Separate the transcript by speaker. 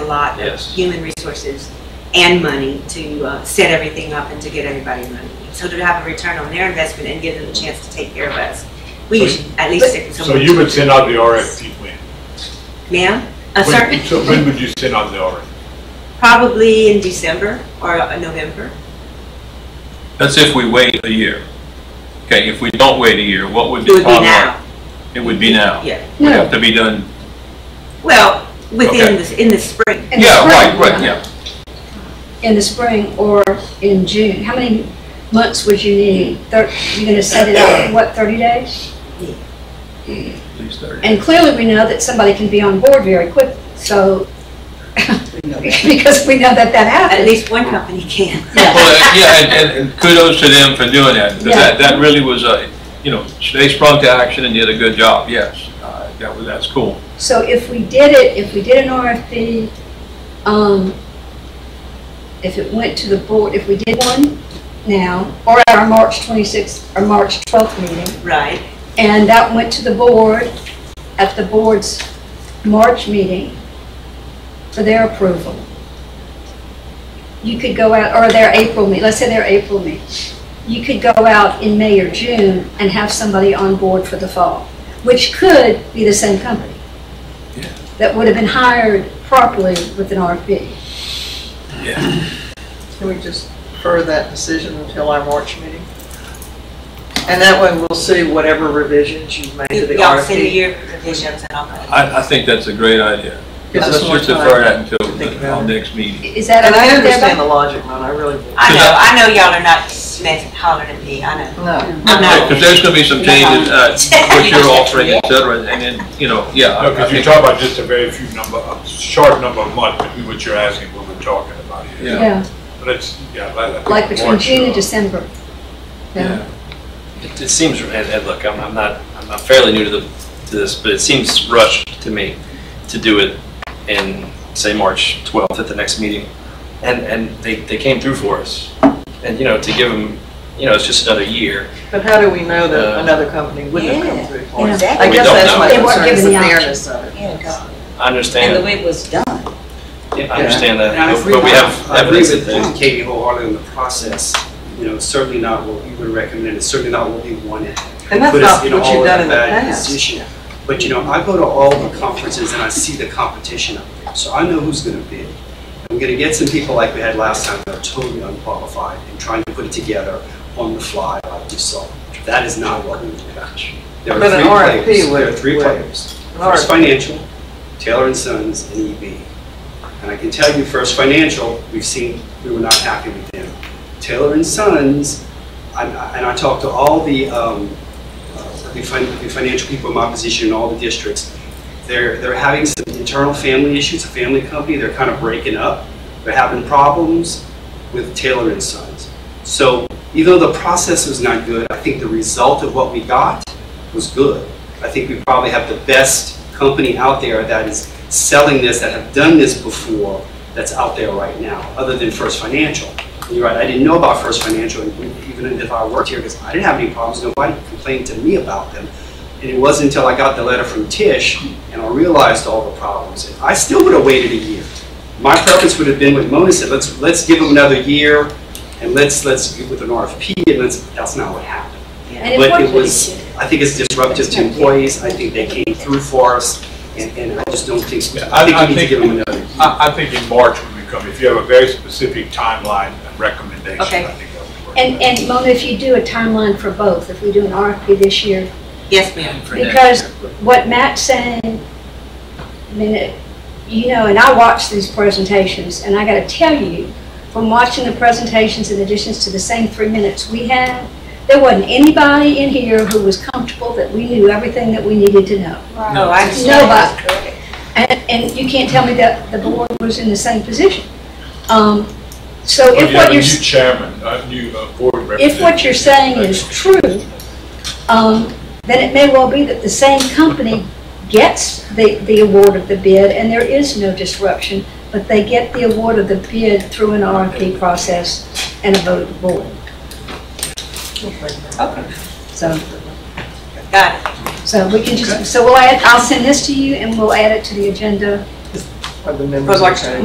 Speaker 1: lot of
Speaker 2: Yes.
Speaker 1: human resources and money to uh, set everything up and to get everybody money. So to have a return on their investment and give them a chance to take care of us, we
Speaker 3: So-
Speaker 1: should at least stick with
Speaker 3: So
Speaker 1: someone.
Speaker 3: you would send out the RFP when?
Speaker 4: Uh,
Speaker 1: Ma'am, Uh, a
Speaker 3: When-
Speaker 1: certain,
Speaker 3: So when would you send out the RFP?
Speaker 1: probably in December or uh, November.
Speaker 5: That's if we wait a year. Okay, if we don't wait a year, what would
Speaker 1: It would
Speaker 5: be
Speaker 1: be
Speaker 5: timeline?
Speaker 1: now,
Speaker 5: It would be now.
Speaker 1: yeah.
Speaker 5: It would have to be done,
Speaker 1: Well,
Speaker 5: Okay.
Speaker 1: within, the- in the spring.
Speaker 4: In the
Speaker 5: yeah, right,
Speaker 4: spring.
Speaker 5: right, yeah.
Speaker 4: In the spring or in June? How many months would you need? Thir- You're gonna set it out, what, 30 days?
Speaker 5: At least thirty.
Speaker 4: And clearly, we know that somebody can be on board very quick, so, because we know that that
Speaker 1: At
Speaker 4: happens.
Speaker 1: least one company can.
Speaker 5: Well, uh, yeah, and- and, and kudos to them for doing that, because that, that really was a, you know, they sprung to action and did a good job, yes. Uh, That was, that's cool.
Speaker 4: So if we did it, if we did an RFP, um, if it went to the board, if we did one now, or at our March 26th, or March 12th meeting,
Speaker 1: Right,
Speaker 4: And that went to the board at the board's March meeting for their approval. You could go out, or their April meet, let's say their April meet. You could go out in May or June and have somebody on board for the fall, which could be the same company.
Speaker 5: Yeah.
Speaker 4: That would have been hired properly with an RFP.
Speaker 6: Can we just defer that decision until our March meeting? And that way we'll see whatever revisions you've made to the
Speaker 1: y'all send
Speaker 6: RFP.
Speaker 1: your revisions and all that.
Speaker 5: I, I think that's a great idea.
Speaker 6: Gives
Speaker 5: Let's
Speaker 6: us more
Speaker 5: just defer
Speaker 6: time.
Speaker 5: that until
Speaker 6: to think
Speaker 5: the- our
Speaker 6: about it.
Speaker 5: next meeting.
Speaker 4: Is that
Speaker 6: And I
Speaker 4: okay with
Speaker 6: understand the
Speaker 4: everybody?
Speaker 6: logic, Ron, I really do.
Speaker 1: I know, I know y'all are not smith hollering at me, I know.
Speaker 6: No.
Speaker 1: I know.
Speaker 5: Because there's gonna be some changes, uh, what you're offering, et cetera, and then, you know, yeah. I- Uh, I
Speaker 3: No, because you're
Speaker 5: think-
Speaker 3: talking about just a very few number, a short number of months, but what you're asking, what we're talking about here.
Speaker 5: Yeah,
Speaker 4: Yeah,
Speaker 3: But it's, yeah. I- I think
Speaker 4: like between
Speaker 3: March,
Speaker 4: June and
Speaker 3: uh,
Speaker 4: December.
Speaker 5: yeah.
Speaker 2: It it seems, and, and look, I'm, I'm not, I'm not fairly new to the, to this, but it seems rushed to me to do it in, say, March 12th at the next meeting. And, and they, they came through for us. And, you know, to give them, you know, it's just another year.
Speaker 6: But how do we know that
Speaker 2: Uh,
Speaker 6: another company wouldn't have
Speaker 7: Yeah,
Speaker 6: come through for us?
Speaker 7: exactly.
Speaker 6: I
Speaker 2: We
Speaker 6: guess
Speaker 2: don't
Speaker 6: that's
Speaker 2: know.
Speaker 6: my
Speaker 4: They weren't
Speaker 6: concern, is
Speaker 4: given
Speaker 6: the
Speaker 4: the option.
Speaker 6: fairness of it.
Speaker 7: Yeah,
Speaker 2: I
Speaker 7: and the
Speaker 2: understand,
Speaker 7: way it was done.
Speaker 2: I understand that,
Speaker 8: And I
Speaker 2: but
Speaker 8: agree
Speaker 2: but we
Speaker 8: with-
Speaker 2: have
Speaker 8: I agree
Speaker 2: evidence that
Speaker 8: with
Speaker 2: they.
Speaker 8: Katie wholeheartedly on the process, you know, certainly not what we would recommend, it's certainly not what we wanted.
Speaker 6: And that's
Speaker 8: But it's,
Speaker 6: not
Speaker 8: you know,
Speaker 6: what
Speaker 8: all
Speaker 6: you've
Speaker 8: of
Speaker 6: done in the
Speaker 8: that
Speaker 6: past.
Speaker 8: decision. But, you know, I go to all the conferences and I see the competition up there, so I know who's gonna bid. I'm gonna get some people like we had last time that are totally unqualified and trying to put it together on the fly like you saw. That is not what we would about. There are
Speaker 6: But an
Speaker 8: three
Speaker 6: RFP
Speaker 8: players. There are
Speaker 6: would-
Speaker 8: three
Speaker 6: would-
Speaker 8: players.
Speaker 6: All
Speaker 8: First
Speaker 6: right.
Speaker 8: Financial, Taylor and Sons, and EB. And I can tell you, First Financial, we've seen, we were not happy with them. Taylor and Sons, I- I- and I talked to all the, um, uh, the fin- the financial people in my position in all the districts. They're, they're having some internal family issues, a family company, they're kind of breaking up. They're having problems with Taylor and Sons. So even though the process was not good, I think the result of what we got was good. I think we probably have the best company out there that is selling this, that have done this before, that's out there right now, other than First Financial. And You're right, I didn't know about First Financial, and even if I worked here, because I didn't have any problems, nobody complained to me about them. And it wasn't until I got the letter from Tish and I realized all the problems. And I still would have waited a year. My preference would have been what Mona said, let's, let's give them another year and let's, let's get with an RFP and let's, that's not what happened.
Speaker 4: And
Speaker 8: But
Speaker 4: worked
Speaker 8: it
Speaker 4: really
Speaker 8: was,
Speaker 4: good.
Speaker 8: I think it's disruptive to employees, I think they came through for us, and, and I just don't think,
Speaker 3: Yeah, I-
Speaker 8: I think
Speaker 3: I
Speaker 8: we need to
Speaker 3: think-
Speaker 8: give them another.
Speaker 3: I, I think in March when we come, if you have a very specific timeline and recommendation,
Speaker 1: Okay.
Speaker 3: I think that would work.
Speaker 4: And, and Mona, if you do a timeline for both, if we do an RFP this year,
Speaker 1: Yes, ma'am.
Speaker 5: for next
Speaker 4: because
Speaker 5: year.
Speaker 4: what Matt's saying, I mean, it- you know, and I watch these presentations, and I gotta tell you, from watching the presentations in additions to the same three minutes we had, there wasn't anybody in here who was comfortable that we knew everything that we needed to know.
Speaker 1: No, I understand.
Speaker 4: Nobody. And, and you can't tell me that the board was in the same position. Um, So
Speaker 3: But
Speaker 4: if
Speaker 3: you have
Speaker 4: what
Speaker 3: a
Speaker 4: you're.
Speaker 3: new chairman, a new uh, board representative.
Speaker 4: If what you're saying is true, um, then it may well be that the same company gets the, the award of the bid and there is no disruption, but they get the award of the bid through an RFP process and a vote of the board.
Speaker 1: Okay,
Speaker 4: So,
Speaker 1: got it.
Speaker 4: so we can just, so we'll add, I'll send this to you and we'll add it to the agenda
Speaker 6: Are the members
Speaker 1: But like-
Speaker 6: okay?